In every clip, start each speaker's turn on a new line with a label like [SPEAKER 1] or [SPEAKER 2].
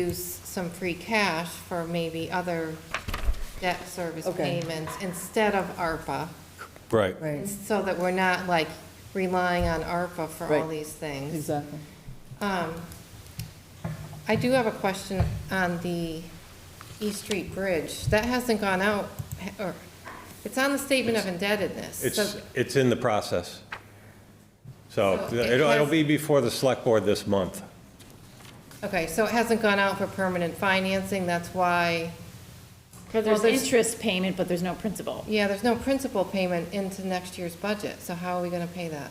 [SPEAKER 1] use some free cash for maybe other debt service
[SPEAKER 2] Okay.
[SPEAKER 1] payments instead of ARPA,
[SPEAKER 3] Right.
[SPEAKER 2] Right,
[SPEAKER 1] so that we're not like relying on ARPA for all
[SPEAKER 2] Right.
[SPEAKER 1] these things.
[SPEAKER 2] exactly.
[SPEAKER 1] Um, I do have a question on the East Street Bridge. That hasn't gone out, or, it's on the statement of indebtedness. so-
[SPEAKER 3] It's, it's in the process. So
[SPEAKER 1] So it
[SPEAKER 3] it'll, it'll
[SPEAKER 1] has-
[SPEAKER 3] be before the select board this month.
[SPEAKER 1] Okay, so it hasn't gone out for permanent financing, that's why,
[SPEAKER 4] Because
[SPEAKER 1] Well,
[SPEAKER 4] there's
[SPEAKER 1] there's-
[SPEAKER 4] interest payment, but there's no principal.
[SPEAKER 1] yeah, there's no principal payment into next year's budget, so how are we gonna pay that?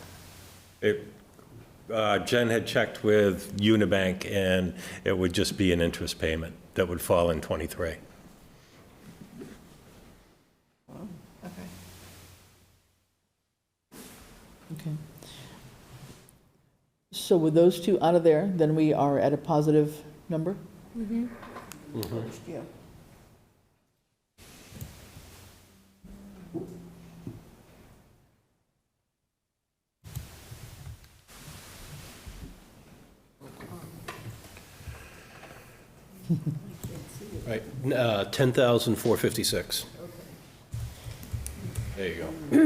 [SPEAKER 3] It, uh, Jen had checked with Unibank, and it would just be an interest payment that would fall in '23.
[SPEAKER 1] Okay.
[SPEAKER 2] Okay. So with those two out of there, then we are at a positive number? Yeah.
[SPEAKER 5] Right, uh, 10,456. There you go.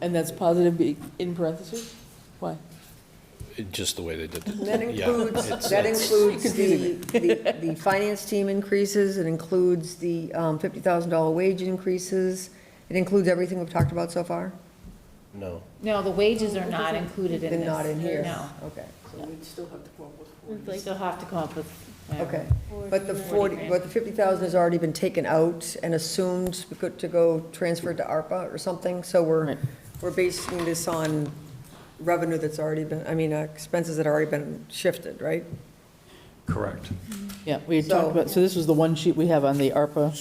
[SPEAKER 2] And that's positive be- in parentheses? Why?
[SPEAKER 5] It- Just the way they did it.
[SPEAKER 6] That
[SPEAKER 5] Yeah, it's-
[SPEAKER 6] includes, that
[SPEAKER 5] it's-
[SPEAKER 6] includes the, the, the finance team increases, it includes the um, $50,000 wage increases, it includes everything we've talked about so far?
[SPEAKER 5] No.
[SPEAKER 4] No, the wages are not included in
[SPEAKER 6] They're
[SPEAKER 4] this.
[SPEAKER 6] not in here?
[SPEAKER 4] No.
[SPEAKER 6] Okay,
[SPEAKER 4] They still have to come up with. whatever.
[SPEAKER 6] okay. But the
[SPEAKER 4] 40
[SPEAKER 6] 40, but the 50,000 has already been taken out and assumed we could- to go transferred to ARPA or something, so we're,
[SPEAKER 2] Right.
[SPEAKER 6] we're basing this on revenue that's already been, I mean, uh, expenses that have already been shifted, right?
[SPEAKER 3] Correct.
[SPEAKER 2] Yeah, we had talked
[SPEAKER 6] So-
[SPEAKER 2] about, so this was the one sheet we have on the ARPA,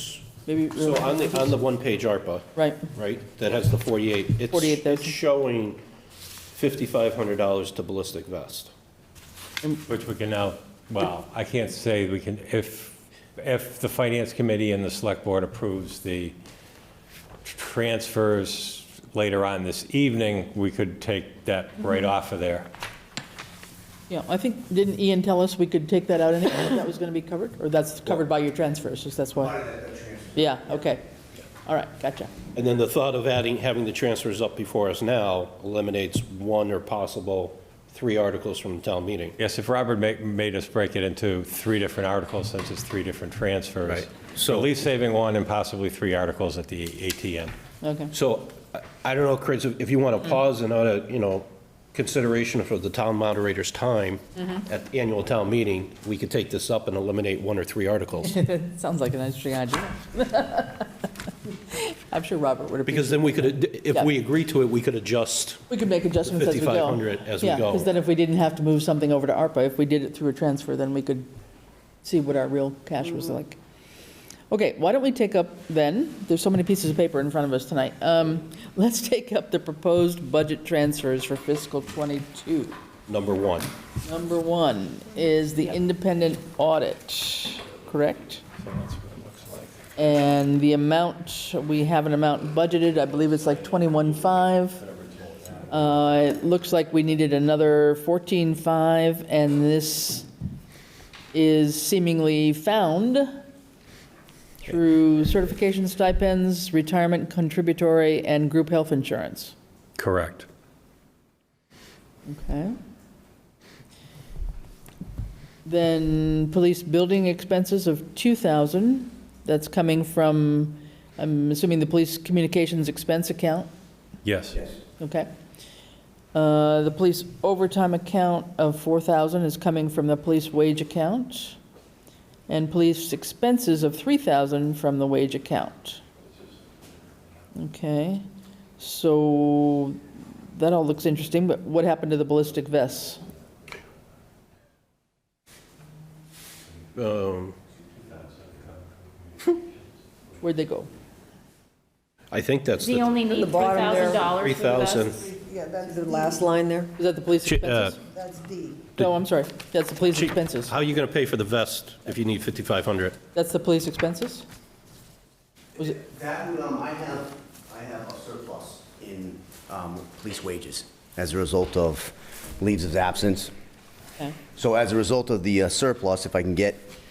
[SPEAKER 2] maybe,
[SPEAKER 5] So on the, on the one-page ARPA,
[SPEAKER 2] right,
[SPEAKER 5] right, that has the 48, it's-
[SPEAKER 2] 48,000.
[SPEAKER 5] it's showing $5,500 to ballistic vest.
[SPEAKER 3] Which we can now, well, I can't say we can, if, if the finance committee and the select board approves the transfers later on this evening, we could take that right off of there.
[SPEAKER 2] yeah, I think, didn't Ian tell us we could take that out anyway, if that was gonna be covered? Or that's covered by your transfers, so that's why? Yeah, okay, all right, gotcha.
[SPEAKER 5] And then the thought of adding, having the transfers up before us now eliminates one or possible three articles from the town meeting.
[SPEAKER 3] Yes, if Robert ma- made us break it into three different articles, since it's three different transfers.
[SPEAKER 5] Right.
[SPEAKER 3] So at least saving one and possibly three articles at the ATM.
[SPEAKER 2] Okay,
[SPEAKER 5] So I- I don't know, Chris, if you
[SPEAKER 4] Mm.
[SPEAKER 5] want to pause and, uh, you know, consideration for the town moderator's time
[SPEAKER 4] Mm-hmm.
[SPEAKER 5] at the annual town meeting, we could take this up and eliminate one or three articles.
[SPEAKER 2] sounds like an interesting idea. I'm sure Robert would appreciate
[SPEAKER 5] Because then we could, if we agree to it, we could adjust.
[SPEAKER 2] We could make adjustments as we go.
[SPEAKER 5] 5,500 as we
[SPEAKER 2] Yeah,
[SPEAKER 5] go.
[SPEAKER 2] because then if we didn't have to move something over to ARPA, if we did it through a transfer, then we could see what our real cash was like. Okay, why don't we take up then, there's so many pieces of paper in front of us tonight. Um, Let's take up the proposed budget transfers for fiscal '22.
[SPEAKER 5] Number one.
[SPEAKER 2] Number one is the independent audit, correct? And the amount, we have an amount budgeted, I believe it's like 21.5. Uh, It looks like we needed another 14.5, and this is seemingly found through certification stipends, retirement contributory, and group health insurance.
[SPEAKER 3] Correct.
[SPEAKER 2] Okay. Then police building expenses of 2,000, that's coming from, I'm assuming the police communications expense account,
[SPEAKER 3] Yes.
[SPEAKER 2] okay? Uh, The police overtime account of 4,000 is coming from the police wage account, and police expenses of 3,000 from the wage account. Okay, so that all looks interesting, but what happened to the ballistic vests?
[SPEAKER 5] Um,
[SPEAKER 2] Where'd they go?
[SPEAKER 5] I think that's
[SPEAKER 4] Does he
[SPEAKER 5] the
[SPEAKER 4] only need
[SPEAKER 6] the bottom there.
[SPEAKER 4] $3,000 for the vests?
[SPEAKER 5] 3,000.
[SPEAKER 7] Yeah, that's
[SPEAKER 6] The
[SPEAKER 7] D,
[SPEAKER 6] last line there?
[SPEAKER 2] Is that the police
[SPEAKER 5] Chi- uh,
[SPEAKER 2] expenses?
[SPEAKER 7] that's D.
[SPEAKER 2] No, I'm sorry, that's the police
[SPEAKER 5] Chi-
[SPEAKER 2] expenses.
[SPEAKER 5] How are you going to pay for the vest if you need 5,500?
[SPEAKER 2] That's the police expenses? Was it,
[SPEAKER 8] That, would, um, I have, I have a surplus in, um, police wages as a result of leaves of absence.
[SPEAKER 2] okay.
[SPEAKER 8] So as a result of the uh, surplus, if I can get